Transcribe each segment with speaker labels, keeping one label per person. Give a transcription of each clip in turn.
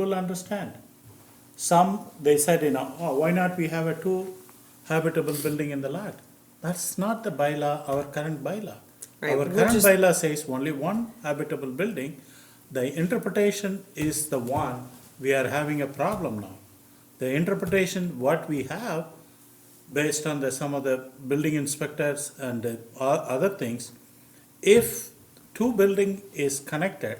Speaker 1: will understand. Some, they said, you know, oh, why not we have a two habitable building in the lot? That's not the bylaw, our current bylaw.
Speaker 2: Right,
Speaker 1: Our
Speaker 2: which
Speaker 1: current
Speaker 2: is-
Speaker 1: bylaw says only one habitable building. The interpretation is the one we are having a problem now. The interpretation, what we have, based on the, some of the building inspectors and uh, o- other things, if two building is connected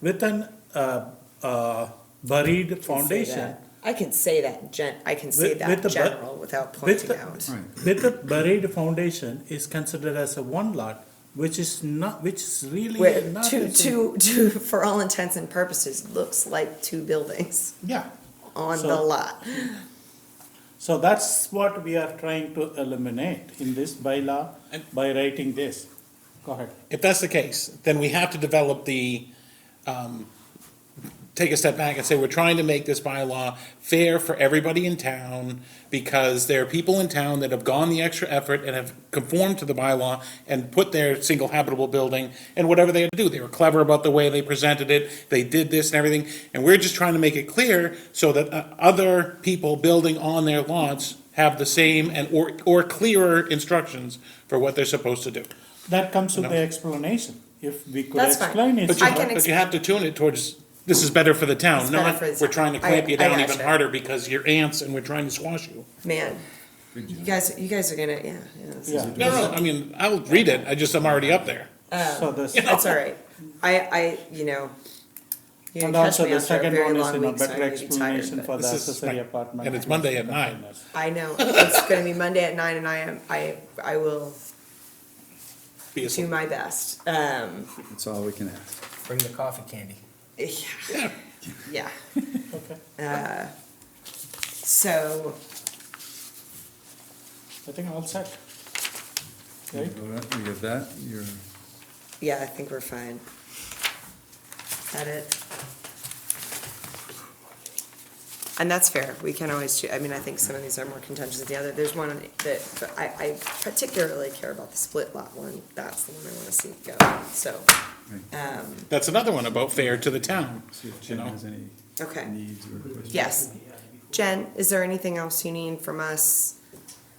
Speaker 1: with an uh, uh, buried foundation.
Speaker 2: I can say that gen, I can say
Speaker 1: with- with
Speaker 2: that
Speaker 1: the bu-
Speaker 2: general without
Speaker 1: with
Speaker 2: pointing
Speaker 1: the-
Speaker 2: out.
Speaker 1: With the buried foundation is considered as a one lot, which is not, which is really
Speaker 2: Where
Speaker 1: not.
Speaker 2: two,
Speaker 1: it's a-
Speaker 2: two, two, for all intents and purposes, looks like two buildings
Speaker 1: Yeah.
Speaker 2: on
Speaker 1: So-
Speaker 2: the lot.
Speaker 1: So that's what we are trying to eliminate in this bylaw by writing this. Go ahead.
Speaker 3: If that's the case, then we have to develop the, um, take a step back and say, we're trying to make this bylaw fair for everybody in town because there are people in town that have gone the extra effort and have conformed to the bylaw and put their single habitable building and whatever they had to do. They were clever about the way they presented it. They did this and everything. And we're just trying to make it clear so that uh, other people building on their lots have the same and or, or clearer instructions for what they're supposed to do.
Speaker 1: That comes with
Speaker 3: No.
Speaker 1: the explanation. If we could
Speaker 2: That's fine.
Speaker 1: explain it.
Speaker 3: But you,
Speaker 2: I can
Speaker 3: but you have to tune it towards, this is better for the town,
Speaker 2: It's better
Speaker 3: not,
Speaker 2: for the
Speaker 3: we're
Speaker 2: town.
Speaker 3: trying to
Speaker 2: I-
Speaker 3: clamp you
Speaker 2: I
Speaker 3: down even
Speaker 2: gotcha.
Speaker 3: harder because you're ants and we're trying to squash you.
Speaker 2: Man, you guys, you guys are gonna, yeah, yeah, this is-
Speaker 1: Yeah.
Speaker 3: No, no, I mean, I'll read it, I just, I'm already up there.
Speaker 1: So
Speaker 2: Um,
Speaker 1: this.
Speaker 2: that's all right. I, I, you know. you
Speaker 1: And
Speaker 2: catch
Speaker 1: also
Speaker 2: me
Speaker 1: the
Speaker 2: after a
Speaker 1: second
Speaker 2: very
Speaker 1: one is,
Speaker 2: long
Speaker 1: you know,
Speaker 2: week, so I
Speaker 1: better
Speaker 2: may be tired,
Speaker 1: explanation
Speaker 2: but-
Speaker 1: for the
Speaker 3: This is
Speaker 1: accessory
Speaker 3: like-
Speaker 1: apartment.
Speaker 3: and it's Monday at nine.
Speaker 1: containers.
Speaker 2: I know, it's gonna be Monday at nine and I am, I, I will
Speaker 3: Be a-
Speaker 2: do my best. Um,
Speaker 4: That's all we can ask.
Speaker 5: Bring the coffee candy.
Speaker 2: yeah, yeah. Uh,
Speaker 1: Okay,
Speaker 2: So,
Speaker 1: I think all set.
Speaker 4: You
Speaker 1: Right?
Speaker 4: have that, you're,
Speaker 2: yeah, I think we're fine. That it? And that's fair, we can always, choo- I mean, I think some of these are more contentious than the other, there's one that, but I, I particularly care about the split lot one, that's the one I wanna see go, so, um,
Speaker 3: That's another one about fair to the town,
Speaker 4: see if
Speaker 3: you
Speaker 4: Jim
Speaker 3: know?
Speaker 4: has any
Speaker 2: okay.
Speaker 4: needs or questions.
Speaker 2: Yes. Jen, is there anything else you need from us?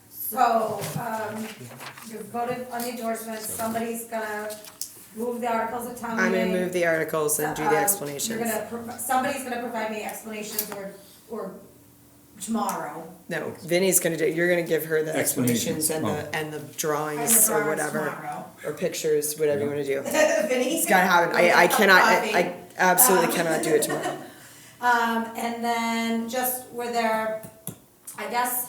Speaker 6: So, um, you voted on the endorsement, somebody's gonna move the articles of town
Speaker 2: I'm
Speaker 6: meeting.
Speaker 2: gonna move the articles and do
Speaker 6: Uh,
Speaker 2: the
Speaker 6: you're
Speaker 2: explanations.
Speaker 6: gonna prov- Somebody's gonna provide me explanations or, or tomorrow.
Speaker 2: No, Vinnie's gonna do, you're gonna give her the explanations
Speaker 4: Explanations,
Speaker 2: and the, and the drawings
Speaker 6: the
Speaker 2: or
Speaker 6: drawings
Speaker 2: whatever.
Speaker 6: tomorrow.
Speaker 2: Or pictures, whatever you wanna do.
Speaker 6: Vinny's
Speaker 2: It's gotta happen, I, I cannot, I I absolutely cannot do it tomorrow.
Speaker 6: Um, and then just were there, I guess,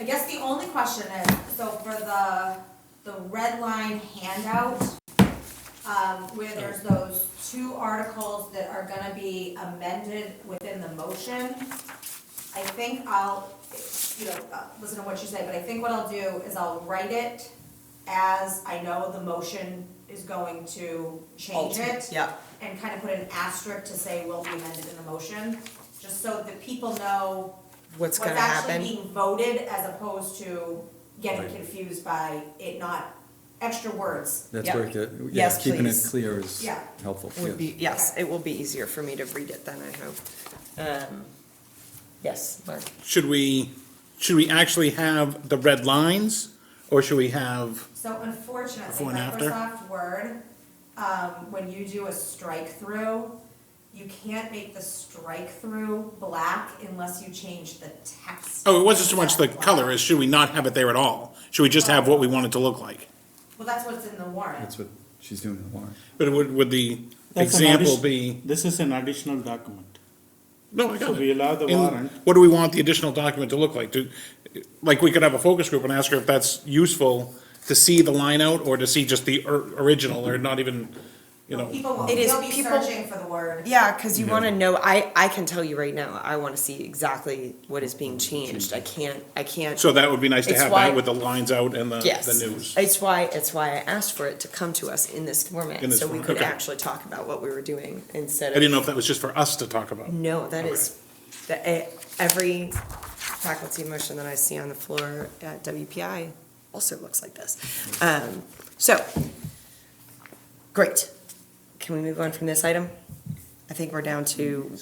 Speaker 6: I guess the only question is, so for the, the red line handout, um, where there's those two articles that are gonna be amended within the motion, I think I'll, you know, uh, listen to what you say, but I think what I'll do is I'll write it as I know the motion is going to change it
Speaker 2: Yeah,
Speaker 6: and kind of put an asterisk to say will be amended in the motion, just so that people know
Speaker 2: what's
Speaker 6: what's
Speaker 2: gonna
Speaker 6: actually
Speaker 2: happen.
Speaker 6: being voted as opposed to getting confused by it not, extra words.
Speaker 4: That's
Speaker 2: Yep.
Speaker 4: where, the- yeah,
Speaker 2: Yes,
Speaker 4: keeping it
Speaker 2: please.
Speaker 4: clear is
Speaker 6: Yeah.
Speaker 4: helpful.
Speaker 2: Would
Speaker 4: yeah.
Speaker 2: be, yes, it will be easier for me to read it then, I hope. Um, Yes, Mark.
Speaker 3: Should we, should we actually have the red lines? Or should we have,
Speaker 6: So unfortunately,
Speaker 3: Before and after?
Speaker 6: Microsoft Word, um, when you do a strike through, you can't make the strike through black unless you change the text.
Speaker 3: oh, it wasn't so much the
Speaker 6: Black.
Speaker 3: color, as should we not have it there at all? Should we just have what we want it to look like?
Speaker 6: Well, that's what's in the warrant.
Speaker 4: That's what she's doing in the warrant.
Speaker 3: But would, would the
Speaker 1: That's an
Speaker 3: example
Speaker 1: addition-
Speaker 3: be,
Speaker 1: This is an additional document.
Speaker 3: no, I got
Speaker 1: So
Speaker 3: it.
Speaker 1: we allow the
Speaker 3: And
Speaker 1: warrant.
Speaker 3: What do we want the additional document to look like? Do, like, we could have a focus group and ask her if that's useful to see the line out or to see just the or- original or not even, you know.
Speaker 6: People will,
Speaker 2: It is
Speaker 6: they'll be
Speaker 2: people-
Speaker 6: searching for the word.
Speaker 2: Yeah, because you want to know. I I can tell you right now. I want to see exactly what is being changed. I can't. I can't.
Speaker 3: So that would be nice to
Speaker 2: It's
Speaker 3: have
Speaker 2: why-
Speaker 3: that with the lines out and the,
Speaker 2: yes,
Speaker 3: the news.
Speaker 2: It's why it's why I asked for it to come to us in this format,
Speaker 3: In this
Speaker 2: so we
Speaker 3: format,
Speaker 2: could
Speaker 3: okay.
Speaker 2: actually talk about what we were doing instead
Speaker 3: I
Speaker 2: of.
Speaker 3: didn't know if that was just for us to talk about.
Speaker 2: No, that is that eh, every faculty motion that I see on the floor at WPI also looks like this. Um, so great. Can we move on from this item? I think we're down to